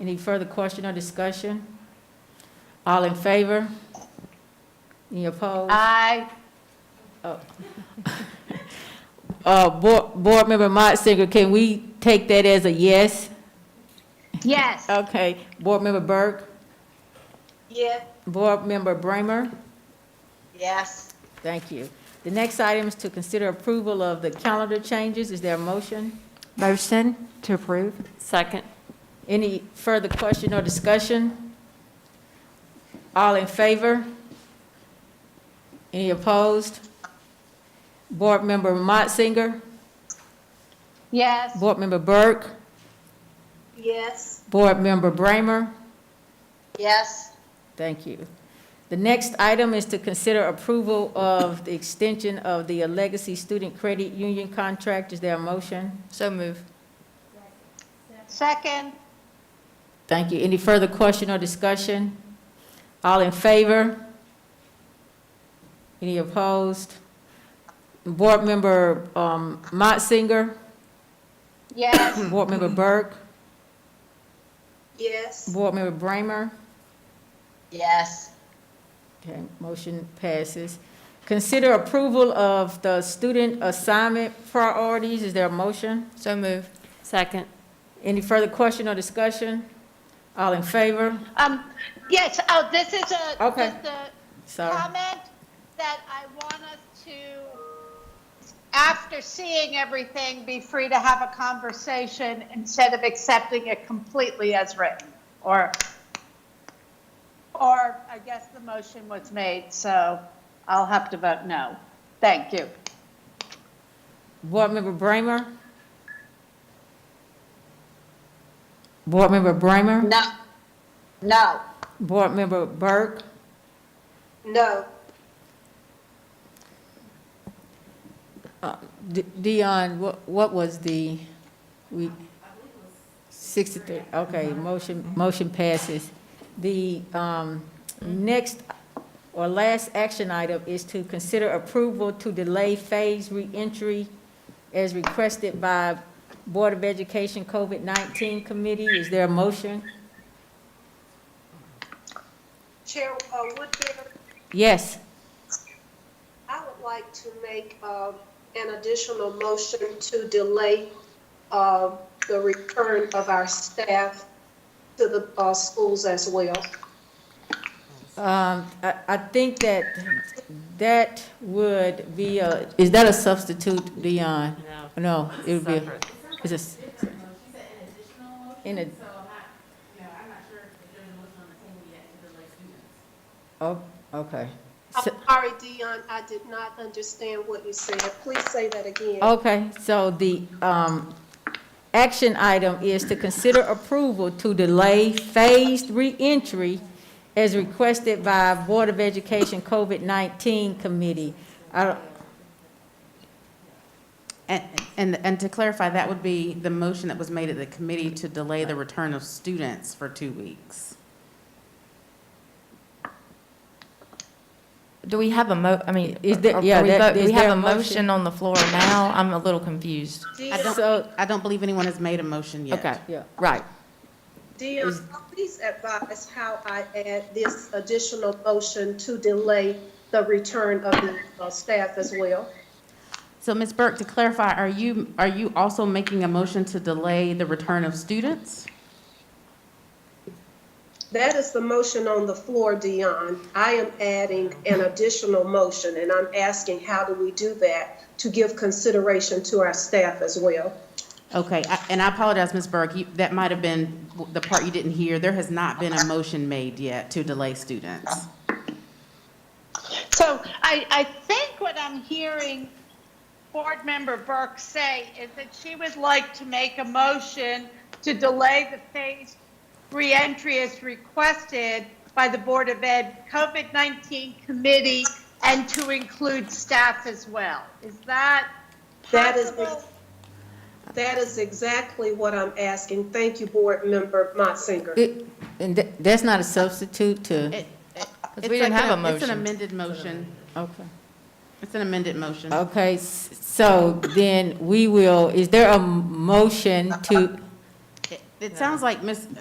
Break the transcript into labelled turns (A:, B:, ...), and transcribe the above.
A: Any further question or discussion? All in favor? Any opposed?
B: Aye.
A: Uh, Board, Board Member Motzinger, can we take that as a yes?
B: Yes.
A: Okay, Board Member Burke,
B: Yeah.
A: Board Member Bramer,
B: Yes.
A: thank you. The next item is to consider approval of the calendar changes. Is there a motion?
C: Motion to approve?
D: Second.
A: Any further question or discussion? All in favor? Any opposed? Board Member Motzinger,
B: Yes.
A: Board Member Burke,
B: Yes.
A: Board Member Bramer,
B: Yes.
A: Thank you. The next item is to consider approval of the extension of the Legacy Student Credit Union contract. Is there a motion?
D: So move.
B: Second.
A: Thank you. Any further question or discussion? All in favor? Any opposed? Board Member um, Motzinger,
B: Yes.
A: Board Member Burke,
B: Yes.
A: Board Member Bramer.
B: Yes.
A: Okay, motion passes. Consider approval of the student assignment priorities. Is there a motion?
D: So move. Second.
A: Any further question or discussion? All in favor?
B: Um, yes, oh, this is a,
A: Okay.
B: just a
A: Sorry.
B: comment that I want us to, after seeing everything, be free to have a conversation instead of accepting it completely as written, or, or I guess the motion was made, so I'll have to vote no. Thank you.
A: Board Member Bramer? Board Member Bramer?
B: No. No.
A: Board Member Burke?
B: No.
A: De- Dion, what, what was the, we, 63, okay, motion, motion passes. The um, next or last action item is to consider approval to delay phase reentry as requested by Board of Education COVID-19 Committee. Is there a motion?
E: Chair uh, Woodbury,
A: Yes,
E: I would like to make um, an additional motion to delay uh, the return of our staff to the uh, schools as well.
A: um, I, I think that that would be a, is that a substitute, Dion? No, it would be, a- it's a. s- In a,
F: So I'm not, you know, I'm not sure if there's a motion on the table yet to delay students.
A: oh, okay.
E: I'm
A: So-
E: sorry, Dion, I did not understand what you said. Please say that again.
A: Okay, so the, um, action item is to consider approval to delay phased reentry as requested by Board of Education COVID-19 Committee. I don't,
F: And, and, and to clarify, that would be the motion that was made at the committee to delay the return of students for two weeks.
D: Do we have a mo, I mean,
A: Is there-
D: are
A: yeah,
D: we
A: that-
D: vote- do
A: is
D: we have
A: there
D: a
A: a motion?
D: motion on the floor now? I'm a little confused.
E: Dion,
A: so,
F: I don't believe anyone has made a motion yet.
D: Okay.
A: yeah,
D: Right.
E: Dion, please advise how I add this additional motion to delay the return of the uh, staff as well.
F: So Ms. Burke, to clarify, are you, are you also making a motion to delay the return of students?
E: That is the motion on the floor, Dion. I am adding an additional motion, and I'm asking how do we do that to give consideration to our staff as well?
F: Okay, I- and I apologize, Ms. Burke, you- that might have been w- the part you didn't hear. There has not been a motion made yet to delay students.
B: So I, I think what I'm hearing Board Member Burke say is that she would like to make a motion to delay the phased reentry as requested by the Board of Ed COVID-19 Committee and to include staff as well. Is that
E: That is-
B: possible?
E: That is exactly what I'm asking. Thank you, Board Member Motzinger.
A: it, and tha- that's not a substitute to,
F: It- it-
D: we
F: it's like
D: didn't have a
F: It's an
D: motion.
F: amended motion. Oh.
A: okay.
F: It's an amended motion.
A: Okay, s- so then we will, is there a motion to?
F: It- It sounds like Ms.,